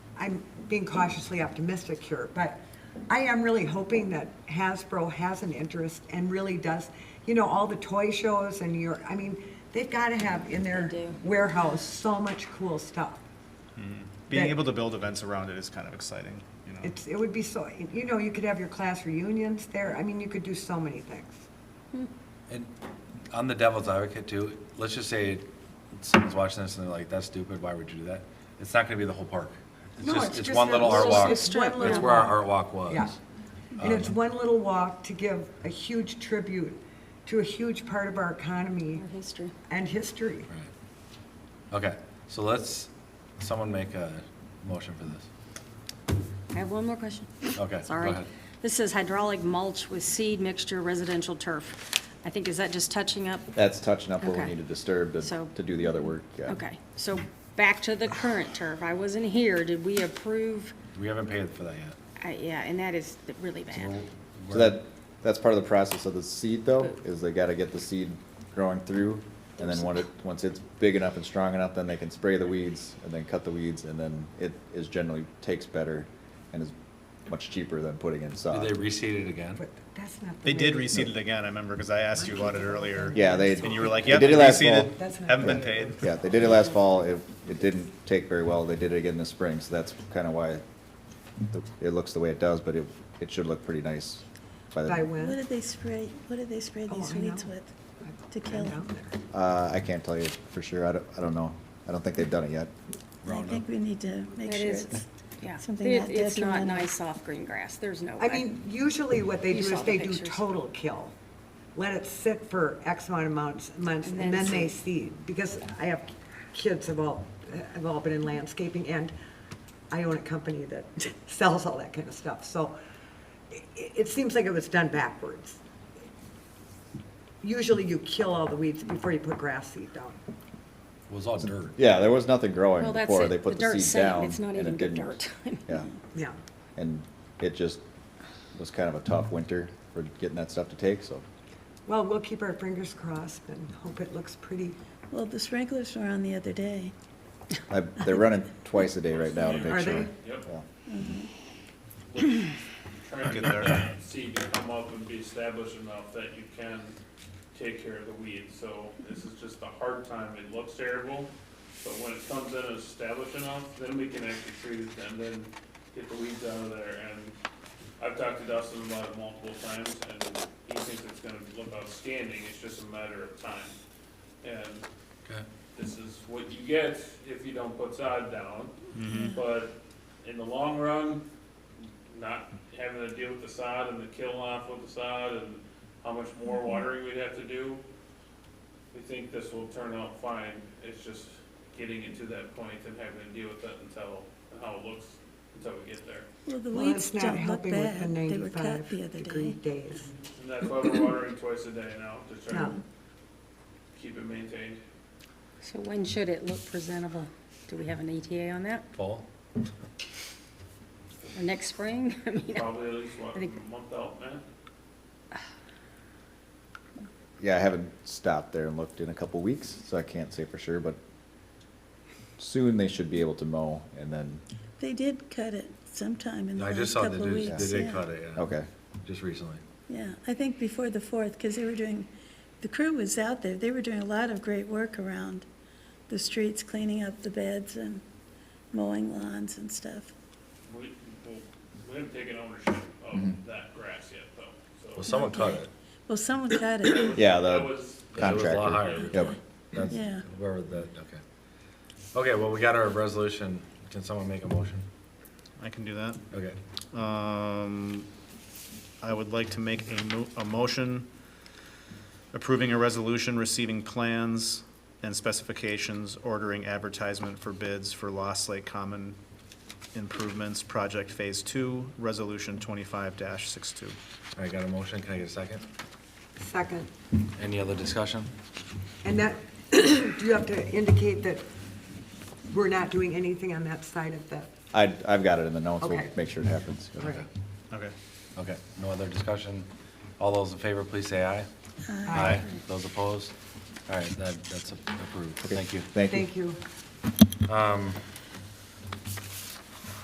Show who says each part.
Speaker 1: I'm being cautiously optimistic here, but I am really hoping that Hasbro has an interest and really does, you know, all the toy shows and your, I mean, they've got to have in their
Speaker 2: They do.
Speaker 1: warehouse so much cool stuff.
Speaker 3: Being
Speaker 1: that-
Speaker 3: able to build events around it is kind of exciting, you know?
Speaker 1: It's, it would be so, you know, you could have your class reunions there. I mean, you could do so many things.
Speaker 4: And on the devil's advocate too, let's just say someone's watching this and they're like, that's stupid, why would you do that? It's not gonna be the whole park. It's
Speaker 1: No,
Speaker 4: just,
Speaker 1: it's
Speaker 4: it's
Speaker 1: just
Speaker 4: one
Speaker 1: a
Speaker 4: little art
Speaker 1: little
Speaker 4: walk. That's
Speaker 1: strip.
Speaker 2: It's
Speaker 4: where our Um, art walk
Speaker 1: Yeah.
Speaker 4: was.
Speaker 1: And it's one little walk to give a huge tribute to a huge part of our economy
Speaker 2: Our history.
Speaker 1: and history.
Speaker 4: Right. Okay, so let's, someone make a motion for this.
Speaker 2: I have one more question.
Speaker 4: Okay, go
Speaker 2: Sorry.
Speaker 4: ahead.
Speaker 2: This says hydraulic mulch with seed mixture residential turf. I think, is that just touching up?
Speaker 5: That's touching up what we
Speaker 2: Okay.
Speaker 5: need to disturb
Speaker 2: So-
Speaker 5: to, to do the other work, yeah.
Speaker 2: Okay, so back to the current turf. I wasn't here. Did we approve?
Speaker 4: We haven't paid for that yet.
Speaker 2: I- Yeah, and that is really
Speaker 4: So
Speaker 2: bad.
Speaker 5: So
Speaker 4: we're-
Speaker 5: that, that's part of the process of the seed though, is they gotta get the seed growing through. And then when it, once it's big enough and strong enough, then they can spray the weeds and then cut the weeds and then it is generally takes better and is much cheaper than putting in
Speaker 4: Did
Speaker 5: sod.
Speaker 4: they reseed it again?
Speaker 1: But that's not. the
Speaker 3: They
Speaker 1: way
Speaker 3: did
Speaker 1: to-
Speaker 3: reseed it again, I remember, because I asked you about it earlier.
Speaker 5: Yeah, they.
Speaker 3: And you were like,
Speaker 5: they
Speaker 3: yep,
Speaker 5: did it last
Speaker 3: reseeded,
Speaker 5: fall.
Speaker 1: That's not
Speaker 3: haven't
Speaker 1: good.
Speaker 3: been paid.
Speaker 5: Yeah, they did it last fall. It, it didn't take very well. They did it again this spring, so that's kinda why the- it looks the way it does, but it, it should look pretty nice by the.
Speaker 1: By
Speaker 6: What
Speaker 1: when?
Speaker 6: did they spray, what did they spray
Speaker 1: Oh,
Speaker 6: these
Speaker 1: I know.
Speaker 6: weeds with? To kill
Speaker 1: Down
Speaker 6: them?
Speaker 1: there.
Speaker 5: Uh, I can't tell you for sure. I don't, I don't know. I don't think they've done it yet.
Speaker 6: I think we need to make
Speaker 2: That
Speaker 6: sure
Speaker 2: is,
Speaker 6: it's,
Speaker 2: yeah.
Speaker 6: something
Speaker 2: It-
Speaker 6: not
Speaker 2: It's not
Speaker 6: detrimental.
Speaker 2: nice soft green grass. There's no
Speaker 1: I
Speaker 2: way.
Speaker 1: mean, usually what they
Speaker 2: You
Speaker 1: do
Speaker 2: saw
Speaker 1: is
Speaker 2: the
Speaker 1: they do
Speaker 2: pictures.
Speaker 1: total kill. Let it sit for X amount of months, months,
Speaker 2: And
Speaker 1: and
Speaker 2: then
Speaker 1: then they seed.
Speaker 2: seed.
Speaker 1: Because I have kids have all, have all been in landscaping, and I own a company that sells all that kind of stuff. So it, it seems like it was done backwards. Usually you kill all the weeds before you put grass seed down.
Speaker 4: It was all dirt.
Speaker 5: Yeah, there was nothing
Speaker 2: Well,
Speaker 5: growing
Speaker 2: that's
Speaker 5: before
Speaker 2: it.
Speaker 5: they put
Speaker 2: The
Speaker 5: the
Speaker 2: dirt's
Speaker 5: seed
Speaker 2: sand.
Speaker 5: down.
Speaker 2: It's not
Speaker 5: and
Speaker 2: even
Speaker 5: it
Speaker 2: good
Speaker 5: didn't.
Speaker 2: dirt.
Speaker 5: Yeah,
Speaker 1: Yeah.
Speaker 5: and it just was kind of a tough winter for getting that stuff to take, so.
Speaker 1: Well, we'll keep our fingers crossed and hope it looks pretty.
Speaker 6: well, the sprinklers were on the other day.
Speaker 5: I, they're running twice a day right now to
Speaker 1: Are
Speaker 5: make sure.
Speaker 1: they?
Speaker 5: Yeah.
Speaker 7: trying
Speaker 3: Get
Speaker 7: to
Speaker 3: there.
Speaker 7: see to come up and be established enough that you can take care of the weeds. So this is just the hard time, it looks terrible, but when it comes in as established enough, then we can actually treat it and then get the weeds out of there. And I've talked to Dustin about it multiple times and he thinks it's gonna look outstanding, it's just a matter of time. And
Speaker 4: Okay.
Speaker 7: this is what you get if you don't put sod down.
Speaker 2: Mm-hmm.
Speaker 7: But in the long run, not having to deal with the sod and the kill off with the sod and how much
Speaker 2: Mm-hmm.
Speaker 7: more watering we'd have to do, we think this will turn out fine. It's just getting it to that point and having to deal with it until, and how it looks until we get there.
Speaker 6: Well, the
Speaker 1: Well,
Speaker 6: weeds
Speaker 1: it's not
Speaker 6: don't look
Speaker 1: helping with the
Speaker 6: bad. They were cut the other
Speaker 1: 95 degree
Speaker 6: day.
Speaker 1: days.
Speaker 7: And that's why we're watering twice a day now, to try
Speaker 1: Yeah.
Speaker 7: to keep it maintained.
Speaker 2: So when should it look presentable? Do we have an ETA on that?
Speaker 4: Paul?
Speaker 2: Or Next spring? I mean,
Speaker 7: Probably at least, what,
Speaker 2: I
Speaker 7: a
Speaker 2: think-
Speaker 7: month out, man?
Speaker 5: Yeah, I haven't stopped there and looked in a couple weeks, so I can't say for sure, but soon they should be able to mow and then,
Speaker 6: They did cut it sometime in the
Speaker 4: I just
Speaker 6: last
Speaker 4: saw they
Speaker 6: couple of
Speaker 4: did,
Speaker 6: weeks.
Speaker 4: they did
Speaker 6: yeah.
Speaker 4: cut it, yeah.
Speaker 5: okay.
Speaker 4: Just recently.
Speaker 6: Yeah, I think before the fourth, because they were doing, the crew was out there, they were doing a lot of great work around the streets, cleaning up the beds and mowing lawns and stuff.
Speaker 7: We, well, we haven't taken ownership
Speaker 5: Mm-hmm.
Speaker 7: of that grass yet, though,
Speaker 4: Well,
Speaker 7: so.
Speaker 4: someone cut it.
Speaker 6: Well, someone cut it,
Speaker 5: Yeah,
Speaker 7: That
Speaker 5: the
Speaker 7: was,
Speaker 4: It was a
Speaker 5: contractor.
Speaker 4: lot higher.
Speaker 5: Yep.
Speaker 4: That's,
Speaker 6: Yeah.
Speaker 4: whoever that, okay. Okay, well, we got our resolution. Can someone make a motion?
Speaker 3: I can do that.
Speaker 4: Okay.
Speaker 3: Um, I would like to make a mo- a motion approving a resolution receiving plans and specifications, ordering advertisement for bids for Lost Lake Common improvements, project phase two, resolution twenty-five dash six-two.
Speaker 4: All right, got a motion. Can I get a second?
Speaker 1: Second.
Speaker 4: Any other discussion?
Speaker 1: And that, do you have to indicate that we're not doing anything on that side of the,
Speaker 5: I, I've got it in the notes. We'll
Speaker 1: Okay.
Speaker 5: make sure it happens.
Speaker 1: Okay.
Speaker 3: Okay.
Speaker 4: Okay, no other discussion. All those in favor, please say aye. Aye. Those opposed? All right, that, that's approved.
Speaker 5: Okay.
Speaker 4: Thank you.
Speaker 5: Thank you.
Speaker 1: thank you.